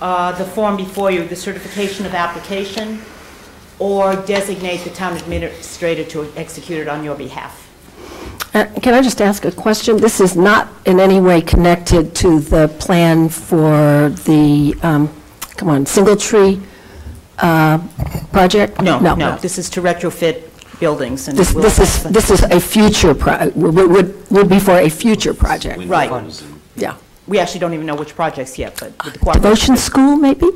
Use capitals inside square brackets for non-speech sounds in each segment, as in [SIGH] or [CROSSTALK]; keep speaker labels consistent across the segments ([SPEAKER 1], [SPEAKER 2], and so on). [SPEAKER 1] uh, the form before you, the certification of application, or designate the town administrator to execute it on your behalf.
[SPEAKER 2] Uh, Can I just ask a question? This is not in any way connected to the plan for the, um, come on, Single Tree uh, project?
[SPEAKER 1] No, no, this is to retrofit buildings and.
[SPEAKER 2] This
[SPEAKER 1] we'll-
[SPEAKER 2] this is, this is a future, pro- would would would be for a future project,
[SPEAKER 1] Right.
[SPEAKER 3] Windows and-
[SPEAKER 2] yeah.
[SPEAKER 1] We actually don't even know which projects yet, but with the cooperation.
[SPEAKER 2] Devotion School, maybe,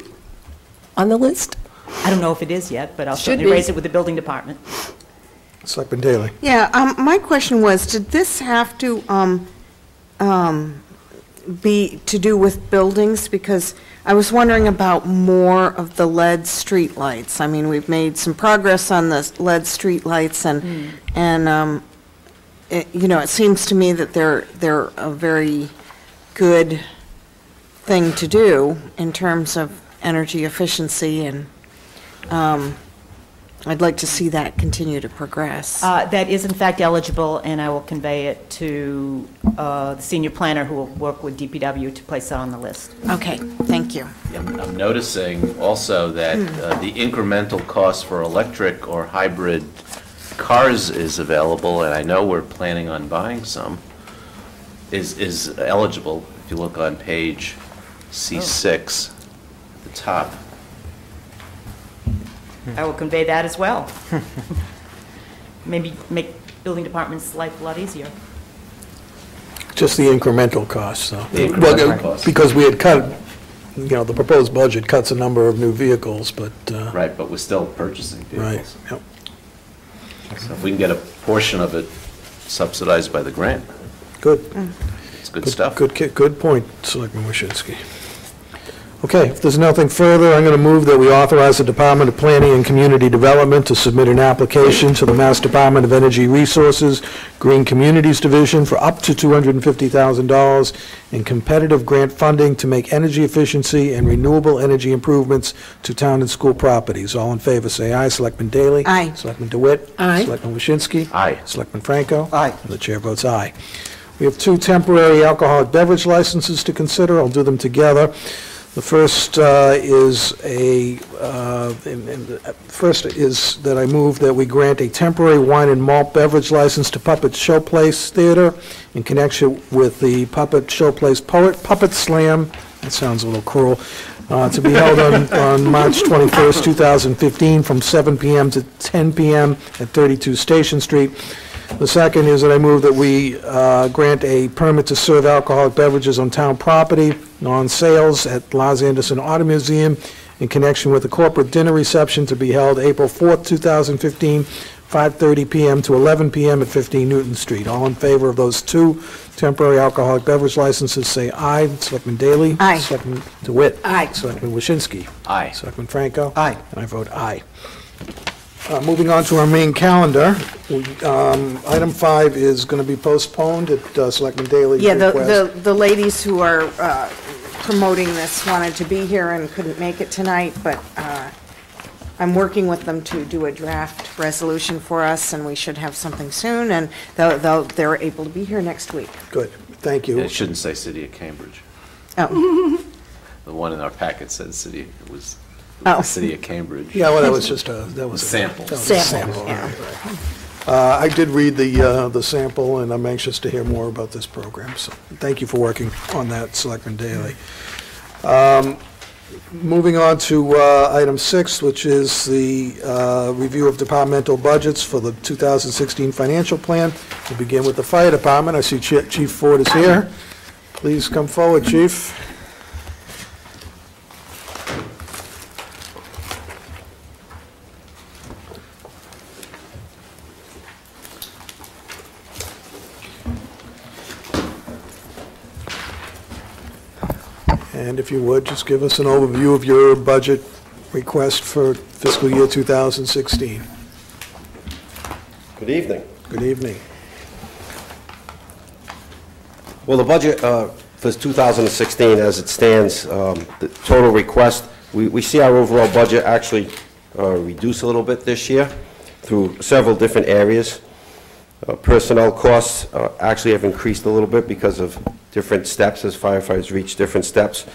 [SPEAKER 2] on the list?
[SPEAKER 1] I don't know if it is yet, but I'll
[SPEAKER 2] Should
[SPEAKER 1] certainly
[SPEAKER 2] be.
[SPEAKER 1] raise it with the building department.
[SPEAKER 4] Selectman Daley.
[SPEAKER 5] Yeah, um, my question was, did this have to, um, um, be, to do with buildings? Because I was wondering about more of the lead streetlights. I mean, we've made some progress on the lead streetlights and, and, um, it, you know, it seems to me that they're, they're a very good thing to do in terms of energy efficiency and, um, I'd like to see that continue to progress.
[SPEAKER 1] Uh, That is in fact eligible, and I will convey it to uh, the senior planner who will work with DPW to place that on the list.
[SPEAKER 5] Okay, thank you.
[SPEAKER 3] I'm I'm noticing also that uh, the incremental cost for electric or hybrid cars is available, and I know we're planning on buying some, is, is eligible, if you look on page C6, the top.
[SPEAKER 1] I will convey that as well. [LAUGHS] Maybe make building department's life a lot easier.
[SPEAKER 4] Just the incremental costs, though.
[SPEAKER 3] The incremental
[SPEAKER 4] Well, uh,
[SPEAKER 3] costs.
[SPEAKER 4] Because we had cut, you know, the proposed budget cuts a number of new vehicles, but, uh,
[SPEAKER 3] Right, but we're still purchasing
[SPEAKER 4] right,
[SPEAKER 3] vehicles.
[SPEAKER 4] yep.
[SPEAKER 3] So if we can get a portion of it subsidized by the grant,
[SPEAKER 4] Good.
[SPEAKER 3] it's good stuff.
[SPEAKER 4] Good, ki- good point, Selectman Waschinsky. Okay, if there's nothing further, I'm going to move that we authorize the Department of Planning and Community Development to submit an application to the Mass Department of Energy Resources Green Communities Division for up to $250,000 in competitive grant funding to make energy efficiency and renewable energy improvements to town and school properties. All in favor, say aye. Selectman Daley?
[SPEAKER 5] Aye.
[SPEAKER 4] Selectman DeWitt?
[SPEAKER 2] Aye.
[SPEAKER 4] Selectman Waschinsky?
[SPEAKER 3] Aye.
[SPEAKER 4] Selectman Franco?
[SPEAKER 6] Aye.
[SPEAKER 4] And the chair votes aye. We have two temporary alcoholic beverage licenses to consider. I'll do them together. The first uh, is a, uh, in- in- uh, first is that I move that we grant a temporary wine and malt beverage license to Puppet Showplace Theater in connection with the Puppet Showplace Poet Puppet Slam, that sounds a little cruel, uh, to be held on on March 21st, 2015, from 7 p.m. to 10 p.m. at 32 Station Street. The second is that I move that we uh, grant a permit to serve alcoholic beverages on town property, non-sales at Los Anderson Auto Museum in connection with a corporate dinner reception to be held April 4th, 2015, 5:30 PM to 11 PM at 15 Newton Street. All in favor of those two temporary alcoholic beverage licenses, say aye. Selectman Daley?
[SPEAKER 5] Aye.
[SPEAKER 4] Selectman DeWitt?
[SPEAKER 5] Aye.
[SPEAKER 4] Selectman Waschinsky?
[SPEAKER 3] Aye.
[SPEAKER 4] Selectman Franco?
[SPEAKER 6] Aye.
[SPEAKER 4] And I vote aye. Uh, Moving on to our main calendar, we, um, item five is going to be postponed at uh, Selectman Daley's
[SPEAKER 5] Yeah, the,
[SPEAKER 4] request.
[SPEAKER 5] the the ladies who are uh, promoting this wanted to be here and couldn't make it tonight, but uh, I'm working with them to do a draft resolution for us, and we should have something soon, and they'll- they'll, they're able to be here next week.
[SPEAKER 4] Good, thank you.
[SPEAKER 3] It shouldn't say City of Cambridge.
[SPEAKER 5] Oh,
[SPEAKER 3] The one in our packet said city, it was it
[SPEAKER 5] Oh.
[SPEAKER 3] was the City of Cambridge.
[SPEAKER 4] Yeah, well, that was just a, that was. a-
[SPEAKER 3] Sample.
[SPEAKER 4] that was a
[SPEAKER 5] Sample,
[SPEAKER 4] sample,
[SPEAKER 5] yeah.
[SPEAKER 4] right, right. Uh, I did read the, uh, the sample, and I'm anxious to hear more about this program, so thank you for working on that, Selectman Daley. Um, Moving on to uh, item six, which is the uh, review of departmental budgets for the 2016 financial plan. We begin with the fire department. I see Chi- Chief Ford is here. Please come forward, chief. And if you would, just give us an overview of your budget request for fiscal year 2016.
[SPEAKER 7] Good evening.
[SPEAKER 4] Good evening.
[SPEAKER 7] Well, the budget uh, for 2016, as it stands, um, the total request, we we see our overall budget actually uh, reduce a little bit this year through several different areas. Uh, Personnel costs uh, actually have increased a little bit because of different steps, as firefighters reach different steps.